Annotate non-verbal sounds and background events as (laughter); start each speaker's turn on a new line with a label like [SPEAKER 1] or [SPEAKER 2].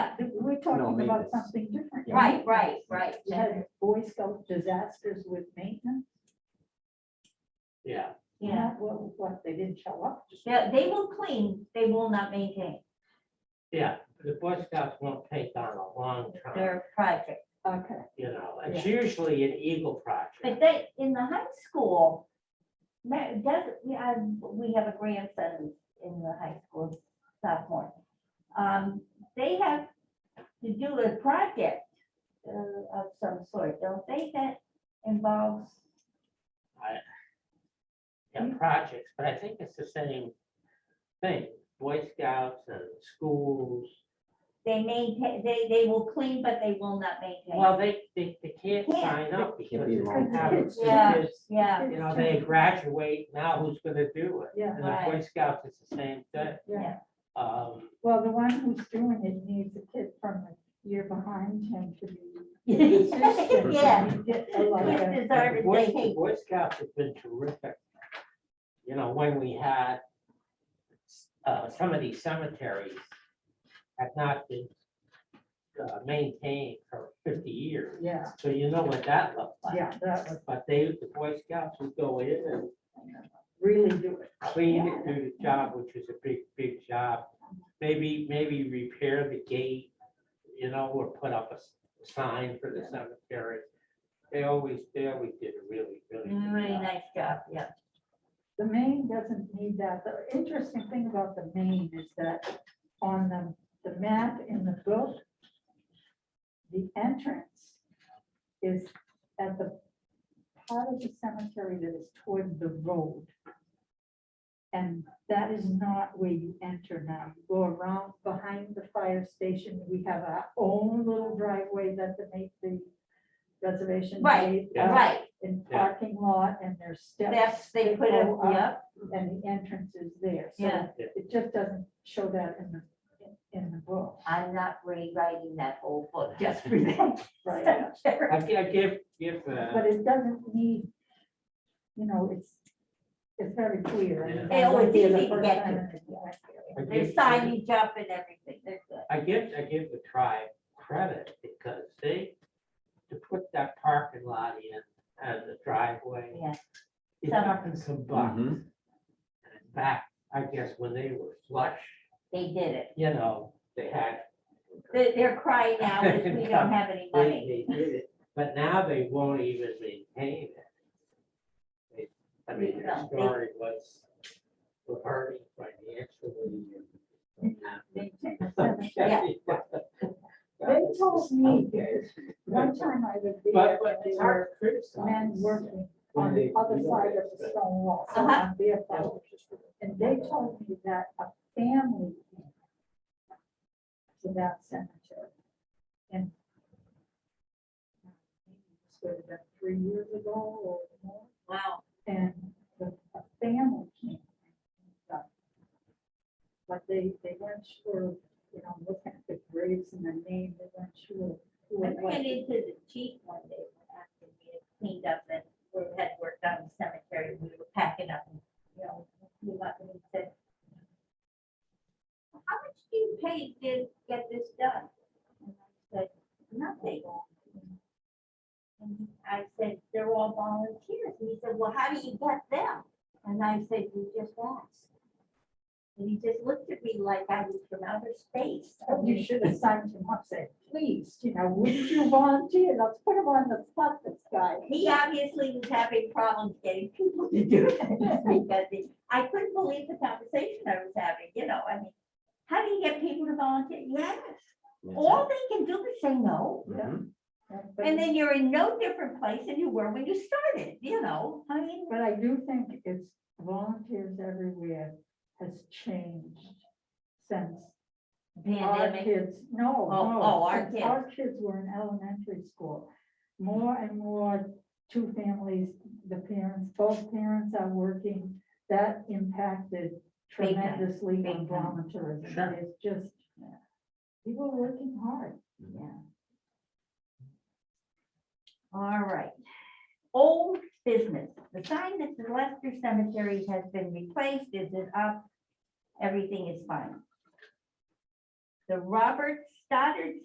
[SPEAKER 1] talking
[SPEAKER 2] No,
[SPEAKER 1] about
[SPEAKER 2] maintenance.
[SPEAKER 1] something different.
[SPEAKER 3] Right, right, right.
[SPEAKER 1] You had Boy Scout disasters with maintenance,
[SPEAKER 2] Yeah,
[SPEAKER 3] Yeah,
[SPEAKER 1] not what, what, they didn't show up.
[SPEAKER 3] yeah, they will clean, they will not maintain
[SPEAKER 4] Yeah, the Boy Scouts won't take on a long time,
[SPEAKER 3] their project.
[SPEAKER 1] Okay,
[SPEAKER 4] you know, it's
[SPEAKER 1] Yeah.
[SPEAKER 4] usually an Eagle
[SPEAKER 3] But
[SPEAKER 4] project.
[SPEAKER 3] they, in the high school, that, that, we have, we have a grandson in the high school sophomore. Um, they have to do a project uh, of some sort, don't they, that involves,
[SPEAKER 1] Mm-hmm.
[SPEAKER 4] Yeah, projects, but I think it's the same thing, Boy Scouts and schools.
[SPEAKER 3] they maintain, they, they will clean, but they will not maintain.
[SPEAKER 4] Well, they, they, they can't
[SPEAKER 3] Can't.
[SPEAKER 4] sign up
[SPEAKER 2] It
[SPEAKER 4] because
[SPEAKER 2] can't be
[SPEAKER 4] it's
[SPEAKER 2] long
[SPEAKER 4] out
[SPEAKER 1] term.
[SPEAKER 4] of,
[SPEAKER 3] Yeah.
[SPEAKER 4] because, (laughs)
[SPEAKER 3] Yeah,
[SPEAKER 4] you know, they graduate, now who's gonna do it?
[SPEAKER 1] Yeah.
[SPEAKER 4] And the Boy Scouts is the same thing.
[SPEAKER 1] yeah.
[SPEAKER 4] Um,
[SPEAKER 1] Well, the one who's doing it needs a kid from the year behind him
[SPEAKER 3] (laughs)
[SPEAKER 1] to be. consistent.
[SPEAKER 3] Yeah.
[SPEAKER 1] Get a lot
[SPEAKER 3] Kids
[SPEAKER 1] of-
[SPEAKER 3] deserve
[SPEAKER 4] The
[SPEAKER 3] it,
[SPEAKER 4] Boy
[SPEAKER 3] they hate.
[SPEAKER 4] Boy Scouts have been terrific. You know, when we had, uh, some of these cemeteries have not been uh, maintained for fifty years,
[SPEAKER 1] Yeah,
[SPEAKER 4] so you know what that looked like.
[SPEAKER 1] yeah, that was
[SPEAKER 4] But they, the Boy Scouts would go in and
[SPEAKER 1] really do it.
[SPEAKER 4] clean it, do the job, which is a big, big job. Maybe, maybe repair the gate, you know, or put up a s- sign for the cemetery. They always, they always did a really, really good
[SPEAKER 3] Really
[SPEAKER 4] job.
[SPEAKER 3] nice job, yeah.
[SPEAKER 1] The main doesn't need that. The interesting thing about the main is that on the, the map in the book, the entrance is at the part of the cemetery that is toward the road. And that is not where you enter now. You Go around behind the fire station. We have our own little driveway that the make the reservation.
[SPEAKER 3] Right,
[SPEAKER 1] made, uh,
[SPEAKER 4] Yeah.
[SPEAKER 3] Right,
[SPEAKER 1] And
[SPEAKER 4] Yeah.
[SPEAKER 1] parking lot and there's steps.
[SPEAKER 3] that's, they
[SPEAKER 1] that
[SPEAKER 3] put it,
[SPEAKER 1] go up
[SPEAKER 3] yeah,
[SPEAKER 1] and the entrance is there. So
[SPEAKER 3] Yeah.
[SPEAKER 4] Yeah.
[SPEAKER 1] It just doesn't show that in the, in the book.
[SPEAKER 3] I'm not rewriting that whole
[SPEAKER 4] (laughs)
[SPEAKER 3] book just for that. (laughs)
[SPEAKER 1] Right.
[SPEAKER 4] I gi- I give, give, uh,
[SPEAKER 1] But it doesn't need, you know, it's, it's very clear. and
[SPEAKER 3] Yeah.
[SPEAKER 1] I went there the
[SPEAKER 3] Yeah, well, it's easy to
[SPEAKER 1] first
[SPEAKER 3] get to.
[SPEAKER 1] time and it's-
[SPEAKER 4] I
[SPEAKER 3] Their
[SPEAKER 4] give, I
[SPEAKER 3] signage up and everything, they're good.
[SPEAKER 4] give, I give the tribe credit because they, to put that parking lot in as a driveway,
[SPEAKER 3] Yeah,
[SPEAKER 4] it's
[SPEAKER 3] Some-
[SPEAKER 4] up in some bucks. And in fact, I guess when they were flush,
[SPEAKER 3] they did it.
[SPEAKER 4] you know, they had,
[SPEAKER 3] They, they're crying
[SPEAKER 4] (laughs)
[SPEAKER 3] out, that we don't have any money.
[SPEAKER 4] they, they did it, but now they won't even maintain it. They- I mean, their
[SPEAKER 3] No, they-
[SPEAKER 4] story was, were hurting financially. and-
[SPEAKER 1] They take the cemetery.
[SPEAKER 3] Yeah.
[SPEAKER 1] They told me, this one time I was there,
[SPEAKER 4] But, but
[SPEAKER 1] and
[SPEAKER 4] it's
[SPEAKER 1] there were
[SPEAKER 4] hard to criticize.
[SPEAKER 1] men working
[SPEAKER 4] when
[SPEAKER 1] on the
[SPEAKER 4] they-
[SPEAKER 1] other
[SPEAKER 4] you know,
[SPEAKER 1] side of
[SPEAKER 4] it's
[SPEAKER 1] the
[SPEAKER 4] the-
[SPEAKER 1] stone wall. so
[SPEAKER 3] Uh-huh.
[SPEAKER 1] I'm there for- And they told me that a family came to that cemetery. And sort of about three years ago or more,
[SPEAKER 3] Wow,
[SPEAKER 1] and the a family came. But- But they, they weren't sure, you know, looking at the graves and the name, they weren't sure. who
[SPEAKER 3] I
[SPEAKER 1] it was.
[SPEAKER 3] ran into the chief one day, after we had cleaned up and we had worked on the cemetery, we were packing up, and, you know, he went and he said, how much do you pay to get this done? And I said, nothing. And I said, they're all volunteers. And he said, well, how do you get them? And I said, we just asked. And he just looked at me like I was from outer space.
[SPEAKER 1] Oh, You should have signed him up, said, please, you know, wouldn't you volunteer? Let's put him on the spot, this
[SPEAKER 3] (laughs)
[SPEAKER 1] guy.
[SPEAKER 3] He obviously was having problems getting people to do things because he- I couldn't believe the conversation I was having, you know, I mean, how do you get people to volunteer? Yes, all they can do is say no.
[SPEAKER 1] Mm-hmm.
[SPEAKER 2] Mhm.
[SPEAKER 1] But-
[SPEAKER 3] And then you're in no different place than you were when you started, you know, I mean,
[SPEAKER 1] But I do think it's volunteers everywhere has changed since our
[SPEAKER 3] pandemic,
[SPEAKER 1] kids, no,
[SPEAKER 3] Oh,
[SPEAKER 1] no,
[SPEAKER 3] oh, our
[SPEAKER 1] since Our kids were in elementary school. More and more, two families, the parents, both parents are working, that impacted
[SPEAKER 3] Big time,
[SPEAKER 1] tremendously on
[SPEAKER 3] big time.
[SPEAKER 1] volunteerism.
[SPEAKER 4] Sure.
[SPEAKER 1] It's just, people are working hard.
[SPEAKER 3] yeah. All right. Old business, the sign that the Lester Cemetery has been replaced, is it up? Everything is fine. The Robert Stoddard